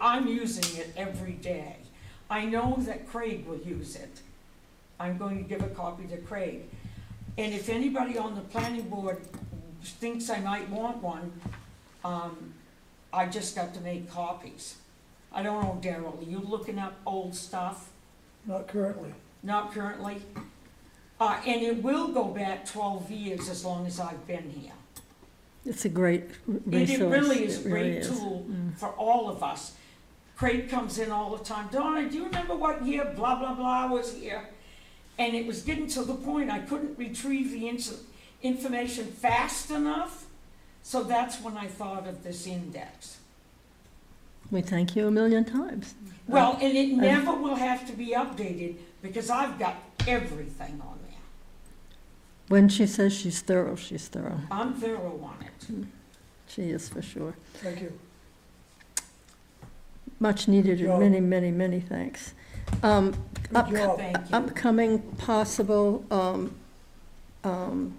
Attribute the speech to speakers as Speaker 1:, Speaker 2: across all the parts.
Speaker 1: I'm using it every day. I know that Craig will use it. I'm going to give a copy to Craig. And if anybody on the planning board thinks I might want one, um, I just got to make copies. I don't know, Daryl, are you looking up old stuff?
Speaker 2: Not currently.
Speaker 1: Not currently. Uh, and it will go back twelve years as long as I've been here.
Speaker 3: It's a great r-
Speaker 1: And
Speaker 3: resource.
Speaker 1: it really is a
Speaker 3: It really
Speaker 1: great
Speaker 3: is. Mm.
Speaker 1: tool for all of us. Craig comes in all the time, Donna, do you remember what year blah, blah, blah was here? And it was getting to the point I couldn't retrieve the ins- information fast enough. So that's when I thought of this index.
Speaker 3: We thank you a million times.
Speaker 1: Well, and it never will have to be updated because I've got everything on there.
Speaker 3: When she says she's thorough, she's thorough.
Speaker 1: I'm thorough on it.
Speaker 3: She is for sure.
Speaker 2: Thank you.
Speaker 3: Much needed
Speaker 2: Joe.
Speaker 3: and many, many, many thanks. Um,
Speaker 2: Good job.
Speaker 1: Thank you.
Speaker 3: Upcoming possible um, um,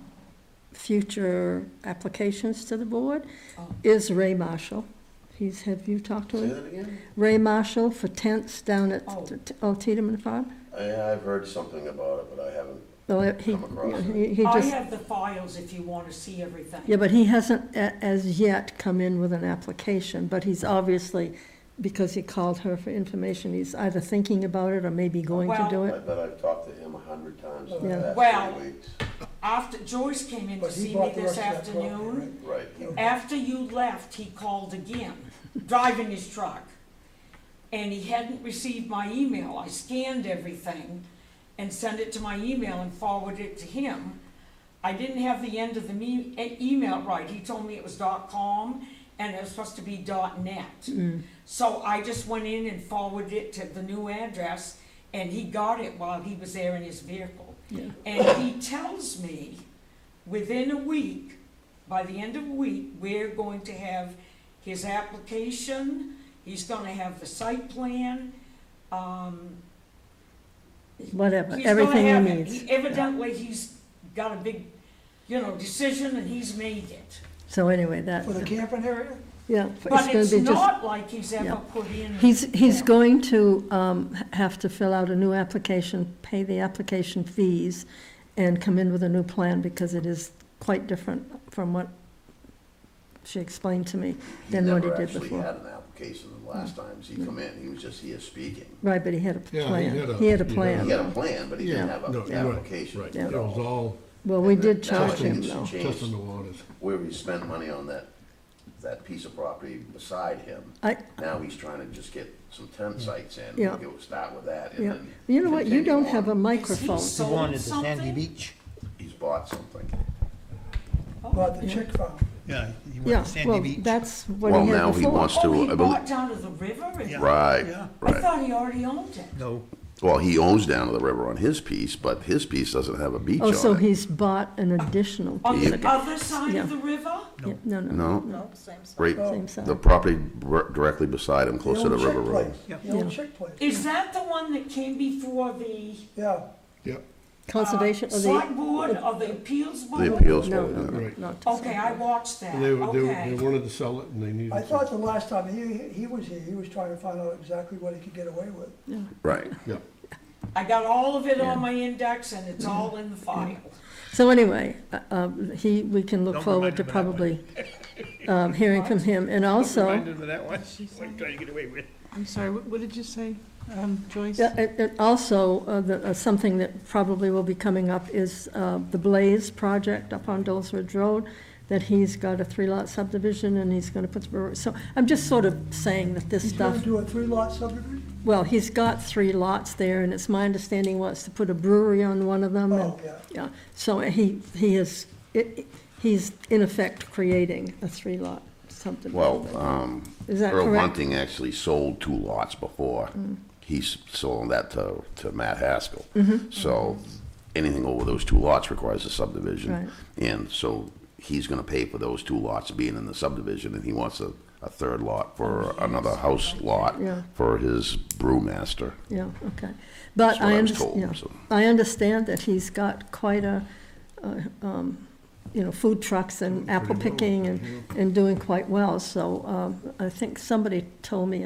Speaker 3: future applications to the board
Speaker 1: Oh.
Speaker 3: is Ray Marshall. He's, have you talked to
Speaker 4: Say
Speaker 3: him?
Speaker 4: that again?
Speaker 3: Ray Marshall for tents down at
Speaker 1: Oh.
Speaker 3: T- Old Tiedemann Farm?
Speaker 4: I, I've heard something about it, but I haven't.
Speaker 3: Well, he,
Speaker 4: Come across it.
Speaker 3: he- he
Speaker 1: I
Speaker 3: just,
Speaker 1: have the files if you want to see everything.
Speaker 3: yeah, but he hasn't a- as yet come in with an application, but he's obviously, because he called her for information, he's either thinking about it or maybe going to
Speaker 1: Well-
Speaker 3: do
Speaker 4: I
Speaker 3: it.
Speaker 4: bet I've talked to him a hundred times in
Speaker 3: Yeah.
Speaker 4: the
Speaker 1: Well-
Speaker 4: past three weeks.
Speaker 1: After Joyce came in to
Speaker 2: But he
Speaker 1: see me
Speaker 2: bought the
Speaker 1: this
Speaker 2: rest of that property,
Speaker 1: afternoon,
Speaker 2: right?
Speaker 4: Right.
Speaker 1: After you left, he called again, driving his truck. And he hadn't received my email. I scanned everything and sent it to my email and forwarded it to him. I didn't have the end of the me- e- email right. He told me it was dot com and it was supposed to be dot net.
Speaker 3: Mm,
Speaker 1: So I just went in and forwarded it to the new address and he got it while he was there in his vehicle.
Speaker 3: Yeah.
Speaker 1: And he tells me, within a week, by the end of a week, we're going to have his application, he's gonna have the site plan, um.
Speaker 3: Whatever,
Speaker 1: he's gonna
Speaker 3: everything
Speaker 1: have
Speaker 3: he
Speaker 1: it.
Speaker 3: needs.
Speaker 1: He- Evidently, he's got a big, you know, decision and he's made it.
Speaker 3: So anyway, that,
Speaker 2: For the camping area?
Speaker 3: yeah, it's
Speaker 1: But
Speaker 3: gonna
Speaker 1: it's
Speaker 3: be just,
Speaker 1: not like he's ever
Speaker 3: yeah.
Speaker 1: put in.
Speaker 3: he's, he's
Speaker 1: Yeah.
Speaker 3: going to um, h- have to fill out a new application, pay the application fees, and come in with a new plan, because it is quite different from what she explained to me. Then what he did
Speaker 4: He
Speaker 3: before. Hmm.
Speaker 4: never actually had an application the last times he come in, he was just here speaking.
Speaker 3: Right, but he had a
Speaker 5: Yeah, he
Speaker 3: plan.
Speaker 5: had a-
Speaker 3: He had a
Speaker 5: he had a-
Speaker 3: plan.
Speaker 4: He had a plan, but he didn't have
Speaker 5: No,
Speaker 4: an
Speaker 5: right,
Speaker 4: application.
Speaker 5: Right,
Speaker 3: Yeah.
Speaker 5: it was all
Speaker 3: Well, we
Speaker 4: And
Speaker 3: did
Speaker 4: now I
Speaker 3: charge
Speaker 4: think
Speaker 3: him,
Speaker 4: it's
Speaker 3: though.
Speaker 5: test in
Speaker 4: changed
Speaker 5: the waters.
Speaker 4: Where we spent money on that, that piece of property beside him.
Speaker 3: I,
Speaker 4: Now he's trying to just get some
Speaker 5: Hmm.
Speaker 4: tent sites in,
Speaker 3: Yeah.
Speaker 4: we'll go start with that and
Speaker 3: yeah,
Speaker 4: then.
Speaker 3: you know what, you
Speaker 4: continue
Speaker 3: don't
Speaker 4: on.
Speaker 3: have a microphone.
Speaker 1: Is he sold
Speaker 6: wanted the sandy
Speaker 1: something?
Speaker 6: beach.
Speaker 4: He's bought something.
Speaker 2: Bought the chick farm.
Speaker 6: Yeah, he wanted
Speaker 3: Yeah,
Speaker 6: sandy
Speaker 3: well,
Speaker 6: beach.
Speaker 3: that's what
Speaker 4: Well,
Speaker 3: he had
Speaker 4: now he
Speaker 3: before.
Speaker 4: wants
Speaker 1: Oh, he
Speaker 4: to, I
Speaker 1: bought
Speaker 4: believe,
Speaker 1: down to the river? and-
Speaker 6: Yeah. Yeah.
Speaker 4: right,
Speaker 1: I
Speaker 4: right.
Speaker 1: thought he already owned it.
Speaker 6: No,
Speaker 4: Well, he owns down to the river on his piece, but his piece doesn't have a beach
Speaker 3: Oh, so
Speaker 4: on it.
Speaker 3: he's bought an additional.
Speaker 1: On
Speaker 3: piece
Speaker 1: the
Speaker 3: of-
Speaker 1: other side
Speaker 3: Yeah.
Speaker 1: of the river?
Speaker 3: Yeah, No, no.
Speaker 4: No,
Speaker 7: No, same side.
Speaker 4: right,
Speaker 3: Same side.
Speaker 4: the property r- directly beside him, close to the
Speaker 2: old chick
Speaker 4: river road.
Speaker 2: place,
Speaker 6: Yeah.
Speaker 2: The old
Speaker 3: Yeah.
Speaker 2: chick place,
Speaker 1: Is that the one that came before the
Speaker 2: yeah.
Speaker 5: Yep,
Speaker 3: Conservation of
Speaker 1: select
Speaker 3: the.
Speaker 1: board or the appeals board?
Speaker 4: The appeals
Speaker 3: No,
Speaker 4: board,
Speaker 3: no,
Speaker 4: yeah.
Speaker 3: no,
Speaker 5: Right.
Speaker 3: not. to
Speaker 1: Okay,
Speaker 3: sell.
Speaker 1: I watched that,
Speaker 5: they, were- they, were- they
Speaker 1: okay.
Speaker 5: wanted to sell it and they needed.
Speaker 2: I
Speaker 5: to-
Speaker 2: thought the last time he, he was here, he was trying to find out exactly what he could get away with.
Speaker 4: right.
Speaker 5: Yeah,
Speaker 1: I got all of it on my index and it's
Speaker 3: Mm-hmm.
Speaker 1: all in the file.
Speaker 3: So anyway, uh, um, he, we can look
Speaker 6: Don't
Speaker 3: forward
Speaker 6: remind
Speaker 3: to
Speaker 6: him of that one.
Speaker 3: probably um, hearing from him. And also,
Speaker 6: reminded me of that one. Like, trying to get away with.
Speaker 8: I'm sorry, what, what did you say, um, Joyce?
Speaker 3: Yeah, and- and also, uh, the- uh, something that probably will be coming up is uh, the Blaze project up on Dulles Ridge Road, that he's got a three-lot subdivision and he's going to put, the brewery- so I'm just sort of saying that this
Speaker 2: He's gonna
Speaker 3: stuff,
Speaker 2: do a three-lot subdivision?
Speaker 3: well, he's got three lots there, and it's my understanding was to put a brewery on one of them. and-
Speaker 2: Oh, yeah.
Speaker 3: Yeah, so he, he is, it- it- he's in effect creating a three-lot subdivision.
Speaker 4: Well, um,
Speaker 3: Is that
Speaker 4: Earl
Speaker 3: correct?
Speaker 4: Bunting actually sold two lots before. He s- sold that to, to Matt Haskell.
Speaker 3: Mm-hmm.
Speaker 4: So anything over those two lots requires a
Speaker 3: Right.
Speaker 4: subdivision. And so he's gonna pay for those two lots being in the subdivision, and he wants a, a third lot for another house lot
Speaker 3: Yeah.
Speaker 4: for his brewmaster.
Speaker 3: Yeah, okay. But
Speaker 4: That's
Speaker 3: I
Speaker 4: what I was
Speaker 3: understand,
Speaker 4: told,
Speaker 3: yeah,
Speaker 4: so.
Speaker 3: I understand that he's got quite a, uh, um, you know, food trucks and apple
Speaker 5: pretty well,
Speaker 3: picking and, and doing quite well. So um, I think uh, somebody told me,